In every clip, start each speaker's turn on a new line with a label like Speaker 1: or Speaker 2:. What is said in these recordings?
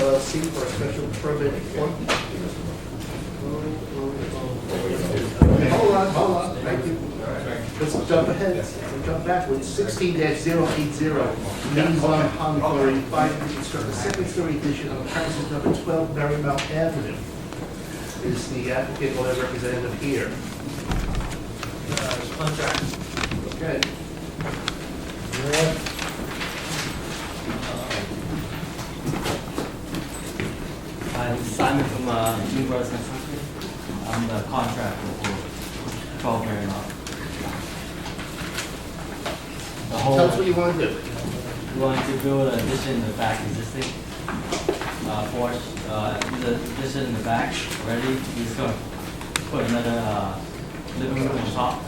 Speaker 1: C for a special permit. Hold on, hold on, thank you. Let's jump ahead, let's jump backwards, sixteen 80 Means on Pond Quarry, five, to construct a second story addition on premises number twelve Marymount Avenue. Is the applicant or their representative here? Okay.
Speaker 2: I'm Simon from uh, New Brothers Construction. I'm the contractor for 12 Marymount. The whole,
Speaker 1: Tell us what you want to do.
Speaker 2: we wanted to build an addition in the back existing, uh, porch, uh, the addition in the back already. We're just gonna put another uh, living room on top.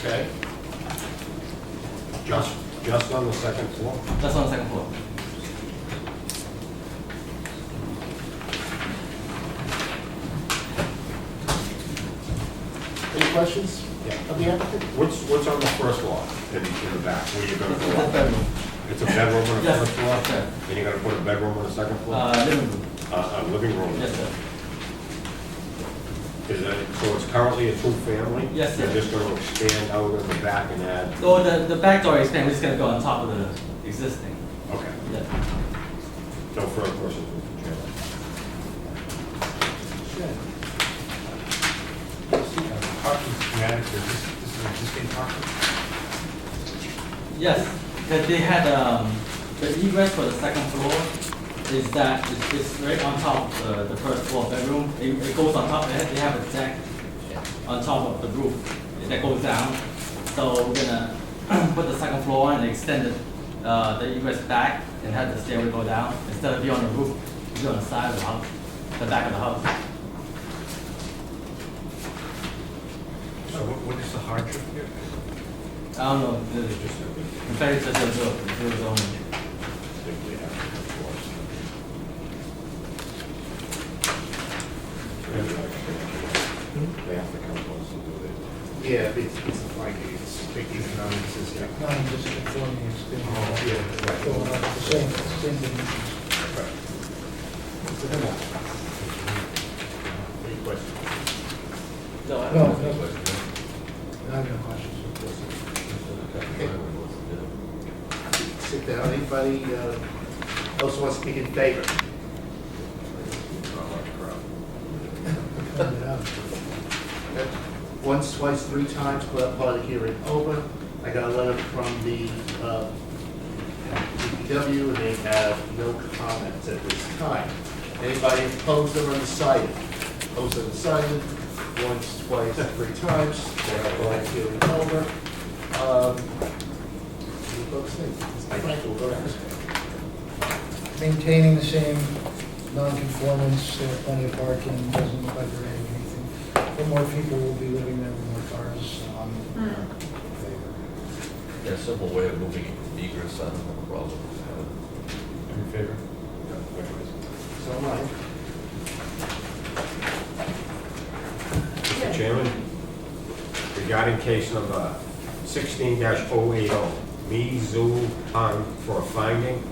Speaker 1: Okay.
Speaker 3: Just, just on the second floor?
Speaker 2: That's on the second floor.
Speaker 1: Any questions
Speaker 3: Yeah.
Speaker 1: of the applicant?
Speaker 3: What's, what's on the first floor in, in the back, where you're gonna
Speaker 2: That's the
Speaker 3: go
Speaker 2: third room.
Speaker 3: It's a bedroom on the
Speaker 2: Yes,
Speaker 3: first floor?
Speaker 2: sir.
Speaker 3: And you're gonna put a bedroom on the second floor?
Speaker 2: Uh, living room,
Speaker 3: A, a living room?
Speaker 2: yes, sir.
Speaker 3: Is it, so it's currently a two-family?
Speaker 2: Yes, sir.
Speaker 3: You're just gonna expand out of the back and add,
Speaker 2: Oh, the, the back door is, we're just gonna go on top of the existing.
Speaker 3: okay,
Speaker 2: Yeah.
Speaker 3: no further questions, Mr. Chairman.
Speaker 4: Parking schematic, or this, this is existing parking?
Speaker 2: Yes, that they had, um, the egress for the second floor is that it's, it's right on top of the, the first floor bedroom. It, it goes on top, they have, they have a deck on top of the roof that goes down. So we're gonna put the second floor and extend it, uh, the egress back and have the stairway go down. Instead of be on the roof, be on the side of the house, the back of the house.
Speaker 4: So what, what is the hardship here?
Speaker 2: I don't know, the- in fact, it's just a zone, it's a zone.
Speaker 3: They have to come close and do it.
Speaker 1: Yeah, it's, it's like, it's, it's non-existent.
Speaker 5: non-disconforming extension,
Speaker 1: Yeah,
Speaker 5: so
Speaker 1: right.
Speaker 5: uh, the same extending
Speaker 1: Any questions?
Speaker 2: No, I
Speaker 5: No,
Speaker 2: don't know.
Speaker 5: no. I have no questions.
Speaker 1: Sit down, anybody uh, else want to speak in favor?
Speaker 5: Cut it out.
Speaker 1: Once, twice, three times, for that part of the hearing over. I got a letter from the uh, DPW, and they have no comments at this time. Anybody opposed or undecided? Opposed or undecided, once, twice, three times, for that part of the hearing over. Um, You folks think? Frank will go next.
Speaker 5: Maintaining the same non-conformance, there are plenty of parking, doesn't look like they're adding anything. But more people will be living there, more cars on the favor.
Speaker 6: Yeah, simple way of moving it from egress, I don't have a problem with that.
Speaker 4: In favor?
Speaker 1: So am I.
Speaker 3: Mr. Chairman, regarding case number sixteen 80 Me Zhu Tang for a finding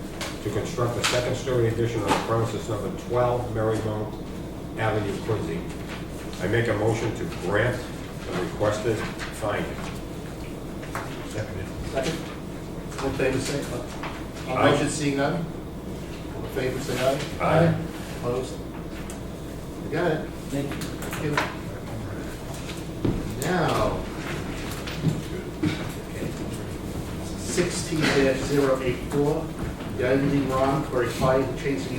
Speaker 3: to construct a second-story addition on premises number twelve Marymount Avenue, Quincy. I make a motion to grant the requested finding.
Speaker 4: Seconded.
Speaker 1: Second. All in favor, say aye.
Speaker 3: Aye.
Speaker 1: All motion seeing none? All in favor, say aye.
Speaker 3: Aye.
Speaker 1: Opposed? You got it.
Speaker 2: Thank
Speaker 1: Thank
Speaker 2: you.
Speaker 1: you. Now. Sixteen dash zero eight four, Yang Ron for a fire change